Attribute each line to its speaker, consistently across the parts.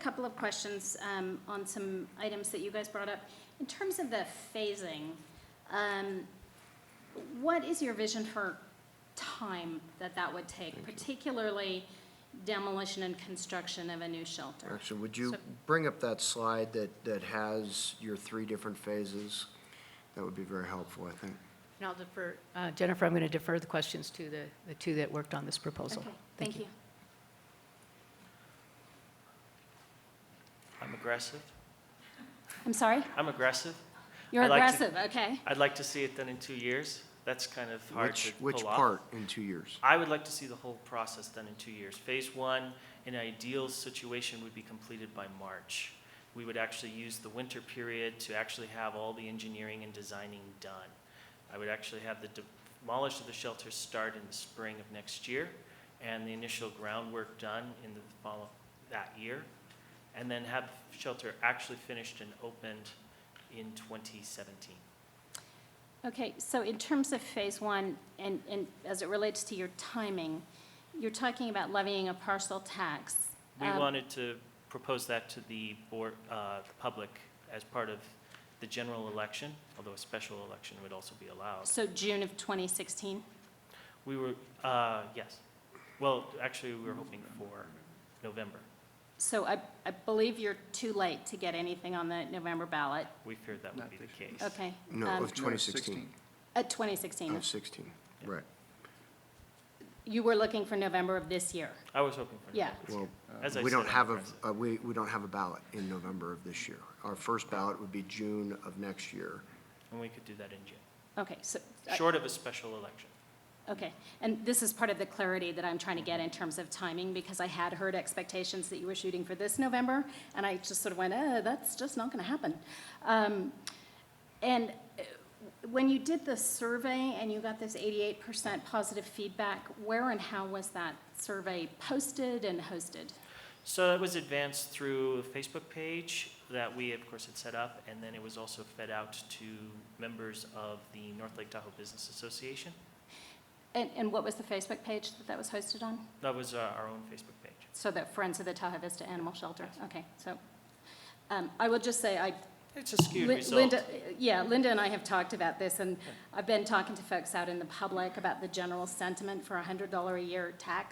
Speaker 1: Couple of questions um, on some items that you guys brought up. In terms of the phasing, um, what is your vision for time that that would take, particularly demolition and construction of a new shelter?
Speaker 2: Actually, would you
Speaker 1: So-
Speaker 2: bring up that slide that, that has your three different phases? That would be very helpful, I think.
Speaker 3: And I'll defer, uh, Jennifer, I'm going to defer the questions to the, the two that worked on this proposal.
Speaker 1: Okay, thank you.
Speaker 4: I'm aggressive.
Speaker 1: I'm sorry?
Speaker 4: I'm aggressive.
Speaker 1: You're
Speaker 4: I like to-
Speaker 1: aggressive, okay.
Speaker 4: I'd like to see it done in two years. That's kind of hard to
Speaker 2: Which,
Speaker 4: pull off.
Speaker 2: which part in two years?
Speaker 4: I would like to see the whole process done in two years. Phase one, in an ideal situation, would be completed by March. We would actually use the winter period to actually have all the engineering and designing done. I would actually have the demolition of the shelters start in the spring of next year, and the initial groundwork done in the fall of that year, and then have the shelter actually finished and opened in 2017.
Speaker 1: Okay, so in terms of phase one, and, and as it relates to your timing, you're talking about levying a parcel tax.
Speaker 4: We
Speaker 1: Um,
Speaker 4: wanted to propose that to the board, uh, the public as part of the general election, although a special election would also be allowed.
Speaker 1: So June of 2016?
Speaker 4: We were, uh, yes. Well, actually, we were hoping for November.
Speaker 1: So I, I believe you're too late to get anything on the November ballot,
Speaker 4: We feared that would be the case.
Speaker 1: okay?
Speaker 2: No,
Speaker 1: um,
Speaker 2: of 2016.
Speaker 1: At 2016.
Speaker 2: Of 16,
Speaker 4: Yeah.
Speaker 2: right.
Speaker 1: You were looking for November of this year.
Speaker 4: I was hoping for
Speaker 1: Yeah.
Speaker 4: November. this
Speaker 2: Well,
Speaker 4: year. As I
Speaker 2: we don't
Speaker 4: said, I'm
Speaker 2: have a,
Speaker 4: aggressive.
Speaker 2: uh, we, we don't have a ballot in November of this year. Our first ballot would be June of next year.
Speaker 4: And we could do that in June,
Speaker 1: Okay, so, I-
Speaker 4: short of a special election.
Speaker 1: okay. And this is part of the clarity that I'm trying to get in terms of timing, because I had heard expectations that you were shooting for this November, and I just sort of went, uh, that's just not going to happen. Um, And uh, when you did the survey and you got this 88% positive feedback, where and how was that survey posted and hosted?
Speaker 4: So it was advanced through a Facebook page that we, of course, had set up, and then it was also fed out to members of the North Lake Tahoe Business Association.
Speaker 1: And, and what was the Facebook page that that was hosted on?
Speaker 4: That was uh, our own Facebook page.
Speaker 1: So that Friends of the Tahoe Vista Animal Shelter?
Speaker 4: Yes.
Speaker 1: Okay, so, um, I will just say, I,
Speaker 4: It's a skewed
Speaker 1: Lin-
Speaker 4: result.
Speaker 1: Linda, yeah, Linda and I have talked about this, and I've been talking to folks out in the public about the general sentiment for a hundred dollar a year tax.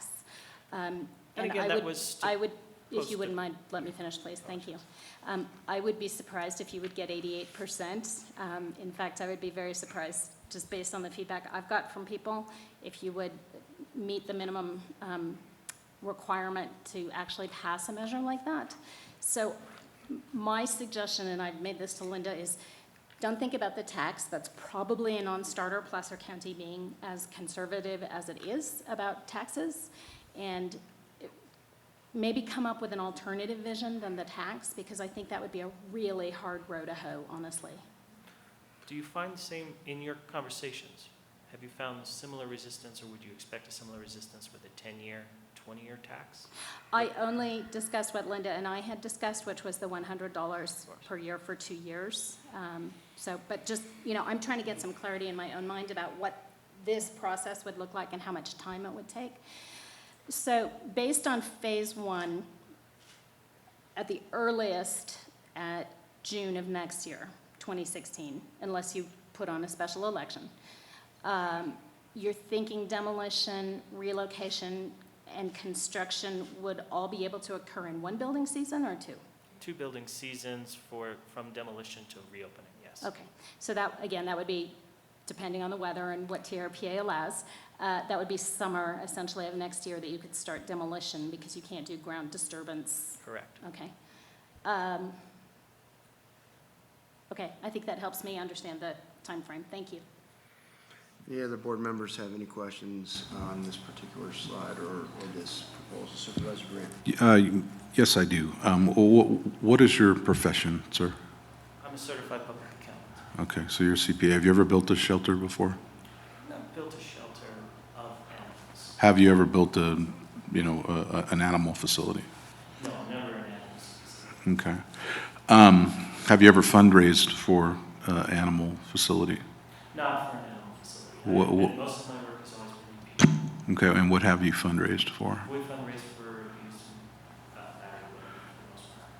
Speaker 1: Um,
Speaker 4: And
Speaker 1: I
Speaker 4: again, that
Speaker 1: would-
Speaker 4: was to-
Speaker 1: I would, if
Speaker 4: close
Speaker 1: you
Speaker 4: to-
Speaker 1: wouldn't mind, let me finish, please, thank you. Um, I would be surprised if you would get eighty-eight percent. Um, in fact, I would be very surprised, just based on the feedback I've got from people, if you would meet the minimum, um, requirement to actually pass a measure like that. So m- my suggestion, and I've made this to Linda, is don't think about the tax. That's probably a non-starter, Placer County being as conservative as it is about taxes. And it- maybe come up with an alternative vision than the tax, because I think that would be a really hard row to hoe, honestly.
Speaker 4: Do you find the same in your conversations? Have you found similar resistance, or would you expect a similar resistance with a 10-year, 20-year tax?
Speaker 1: I only discussed what Linda and I had discussed, which was the one hundred dollars per year for two years. Um, So, but just, you know, I'm trying to get some clarity in my own mind about what this process would look like and how much time it would take. So based on phase one, at the earliest, at June of next year, 2016, unless you put on a special election, um, you're thinking demolition, relocation, and construction would all be able to occur in one building season or two?
Speaker 4: Two building seasons for, from demolition to reopening, yes.
Speaker 1: Okay, so that, again, that would be, depending on the weather and what TRPA allows, uh, that would be summer essentially of next year that you could start demolition because you can't do ground disturbance,
Speaker 4: Correct.
Speaker 1: okay? Um, Okay, I think that helps me understand the time frame. thank you.
Speaker 2: Any other board members have any questions on this particular slide or, or this proposal? Supervisor Green?
Speaker 5: Uh, Yes, I do. Um, wh- What is your profession, sir?
Speaker 4: I'm a certified public accountant.
Speaker 5: Okay, so you're a CPA. Have you ever built a shelter before?
Speaker 4: I've built a shelter of animals.
Speaker 5: Have you ever built a, you know, a- a- an animal facility?
Speaker 4: No, never an animal. specific.
Speaker 5: Okay. Um, Have you ever fundraised for uh, animal facility?
Speaker 4: Not for an animal facility.
Speaker 5: Wha- wha-
Speaker 4: And Most of my work has always been
Speaker 5: Okay, and what have you fundraised for?
Speaker 4: We fundraise for uh,